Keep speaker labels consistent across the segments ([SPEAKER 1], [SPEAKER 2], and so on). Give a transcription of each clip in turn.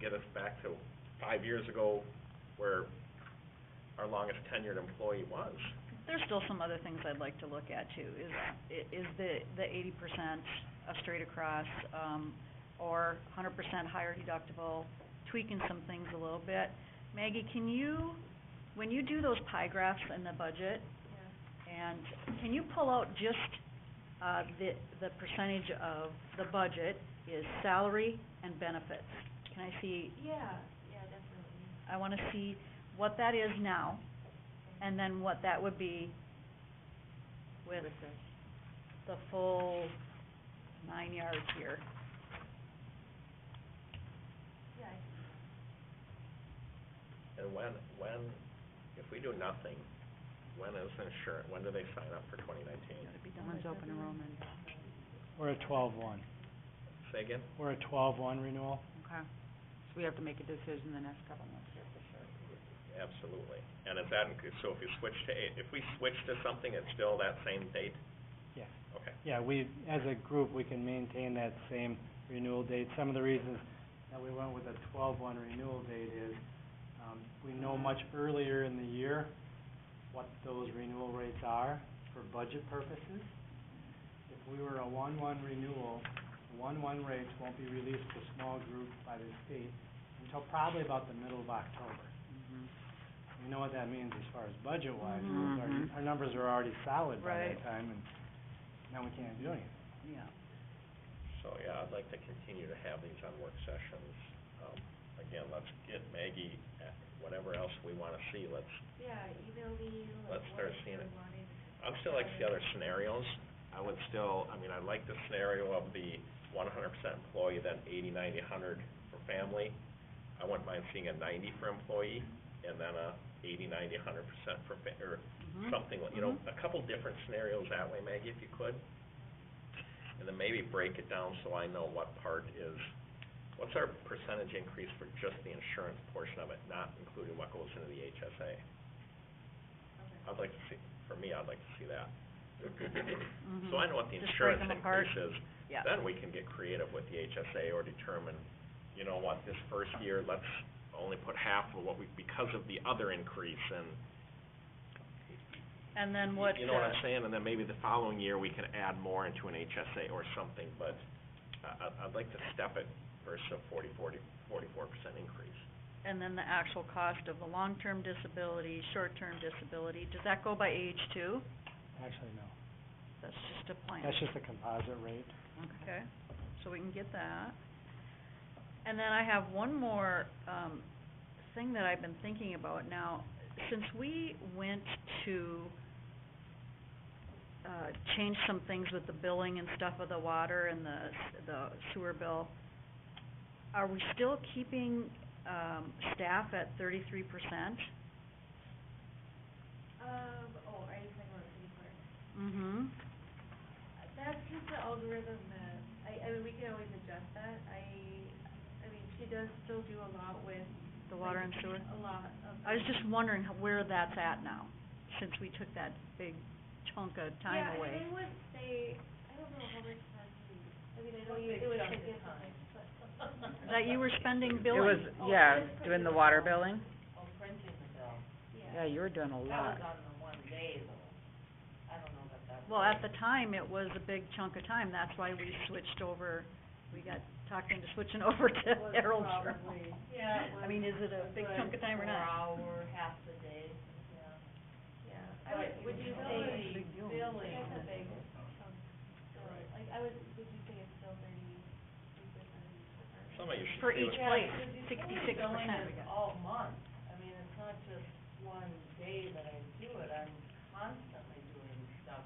[SPEAKER 1] get us back to five years ago where our longest tenured employee was.
[SPEAKER 2] There's still some other things I'd like to look at too, is, i- is the, the eighty percent straight across, um, or hundred percent higher deductible, tweaking some things a little bit. Maggie, can you, when you do those pie graphs in the budget, and can you pull out just, uh, the, the percentage of the budget is salary and benefits? Can I see,
[SPEAKER 3] Yeah, yeah, definitely.
[SPEAKER 2] I wanna see what that is now, and then what that would be with the full nine yards here.
[SPEAKER 3] Yeah, I can-
[SPEAKER 1] And when, when, if we do nothing, when is insurance, when do they sign up for twenty nineteen?
[SPEAKER 2] It'd be done by
[SPEAKER 3] open
[SPEAKER 2] February.
[SPEAKER 3] enrollment.
[SPEAKER 4] We're at twelve one.
[SPEAKER 1] Say again?
[SPEAKER 4] We're at twelve one renewal.
[SPEAKER 5] Okay, so we have to make a decision the next couple months.
[SPEAKER 1] Absolutely. And is that, inclu- so if you switch to, eight- if we switch to something, it's still that same date?
[SPEAKER 4] Yes.
[SPEAKER 1] Okay.
[SPEAKER 4] Yeah, we, as a group, we can maintain that same renewal date. Some of the reasons that we went with a twelve one renewal date is, um, we know much earlier in the year what those renewal rates are for budget purposes. If we were a one one renewal, one one rates won't be released to small groups by the state until probably about the middle of October.
[SPEAKER 1] Mm-hmm.
[SPEAKER 4] We know what that means as far as budget wise,
[SPEAKER 5] Mhm.
[SPEAKER 4] our, our numbers are already solid by
[SPEAKER 2] Right.
[SPEAKER 4] that time and now we can't do anything.
[SPEAKER 2] Yeah.
[SPEAKER 1] So, yeah, I'd like to continue to have these on work sessions. Um, again, let's get Maggie, uh, whatever else we wanna see, let's,
[SPEAKER 3] yeah, email me, like,
[SPEAKER 1] Let's start
[SPEAKER 3] what if
[SPEAKER 1] seeing
[SPEAKER 3] you
[SPEAKER 1] it.
[SPEAKER 3] wanted.
[SPEAKER 1] I'm still like the other scenarios. I would still, I mean, I like the scenario of the one hundred percent employee, then eighty, ninety, hundred for family. I wouldn't mind seeing a ninety for employee, and then a eighty, ninety, hundred percent for fa- or
[SPEAKER 2] Mhm.
[SPEAKER 1] something, like- you know,
[SPEAKER 2] Mhm.
[SPEAKER 1] a couple different scenarios that way, Maggie, if you could. And then maybe break it down so I know what part is, what's our percentage increase for just the insurance portion of it, not including what goes into the HSA? I'd like to see, for me, I'd like to see that. So I know what the
[SPEAKER 2] Mm-hmm. Just break
[SPEAKER 1] insurance
[SPEAKER 2] 'em apart.
[SPEAKER 1] increase is.
[SPEAKER 2] Yeah.
[SPEAKER 1] Then we can get creative with the HSA or determine, you know what, this first year, let's only put half of what we, because of the other increase and
[SPEAKER 2] And then what,
[SPEAKER 1] you know what I'm
[SPEAKER 2] uh,
[SPEAKER 1] saying, and then maybe the following year, we can add more into an HSA or something, but I, I- I'd like to step it versus a forty, forty, forty-four percent increase.
[SPEAKER 2] and then the actual cost of the long-term disability, short-term disability, does that go by age too?
[SPEAKER 4] Actually, no.
[SPEAKER 2] That's just a plan.
[SPEAKER 4] That's just a composite rate.
[SPEAKER 2] Okay, so we can get that. And then I have one more, um, thing that I've been thinking about now. Since we went to, uh, change some things with the billing and stuff of the water and the, s- the sewer bill, are we still keeping, um, staff at thirty-three percent?
[SPEAKER 3] Um, oh, are you talking about city clerk?
[SPEAKER 2] Mm-hmm.
[SPEAKER 3] Uh, That's just the algorithm that, I, I mean, we can always adjust that, I, I mean, she does still do a lot with.
[SPEAKER 2] The water
[SPEAKER 3] like,
[SPEAKER 2] and sewer?
[SPEAKER 3] A lot of.
[SPEAKER 2] I was just wondering how- where that's at now, since we took that big chunk of time away.
[SPEAKER 3] Yeah, and I would say, I don't know how much time you, I mean, I know you, it was like this time, but.
[SPEAKER 2] That you were spending
[SPEAKER 5] It
[SPEAKER 2] billing.
[SPEAKER 5] was,
[SPEAKER 3] Oh,
[SPEAKER 5] yeah,
[SPEAKER 3] just put
[SPEAKER 5] doing
[SPEAKER 3] it
[SPEAKER 5] the
[SPEAKER 3] on.
[SPEAKER 5] water billing. Yeah,
[SPEAKER 3] Yeah.
[SPEAKER 5] you were doing a lot.
[SPEAKER 2] Well, at the time, it was a big chunk of time, that's why we switched over, we got talked into switching over to Harold Journal.
[SPEAKER 3] Yeah.
[SPEAKER 2] I mean, is it a big chunk of time or not?
[SPEAKER 3] Yeah, I would, would you say billing? That's a big chunk, so, like, I would, would you say it's still thirty, three percent?
[SPEAKER 1] Some of you should
[SPEAKER 2] For
[SPEAKER 1] see
[SPEAKER 2] each
[SPEAKER 1] what-
[SPEAKER 2] place, sixty-six percent we got.
[SPEAKER 6] all month, I mean, it's not just one day that I do it, I'm constantly doing stuff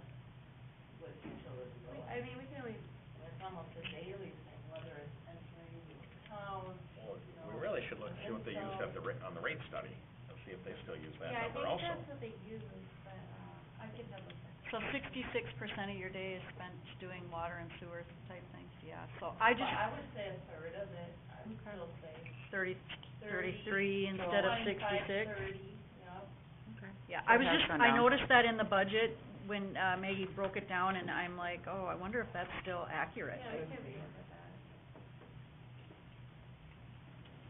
[SPEAKER 6] with utility
[SPEAKER 3] We,
[SPEAKER 6] billing.
[SPEAKER 3] I mean, we can always,
[SPEAKER 6] And It's almost a daily thing, whether it's entering the town, you know.
[SPEAKER 1] We really should look, see what they used at the rate, on the rate study, and see if they still use that
[SPEAKER 3] yeah, I think
[SPEAKER 1] number also.
[SPEAKER 3] that's what they use, but, uh, I can double check.
[SPEAKER 2] So sixty-six percent of your day is spent doing water and sewer type things, yeah, so I
[SPEAKER 6] But I
[SPEAKER 2] just,
[SPEAKER 6] would say a third of it, I would still say
[SPEAKER 2] thirty,
[SPEAKER 6] thirty.
[SPEAKER 2] thirty-three instead of
[SPEAKER 6] Twenty-five,
[SPEAKER 2] sixty-six.
[SPEAKER 6] thirty, yeah.
[SPEAKER 2] Yeah, I
[SPEAKER 5] It
[SPEAKER 2] was
[SPEAKER 5] has
[SPEAKER 2] just,
[SPEAKER 5] gone
[SPEAKER 2] I
[SPEAKER 5] down.
[SPEAKER 2] noticed that in the budget when, uh, Maggie broke it down, and I'm like, oh, I wonder if that's still accurate.
[SPEAKER 3] Yeah, we can reorder.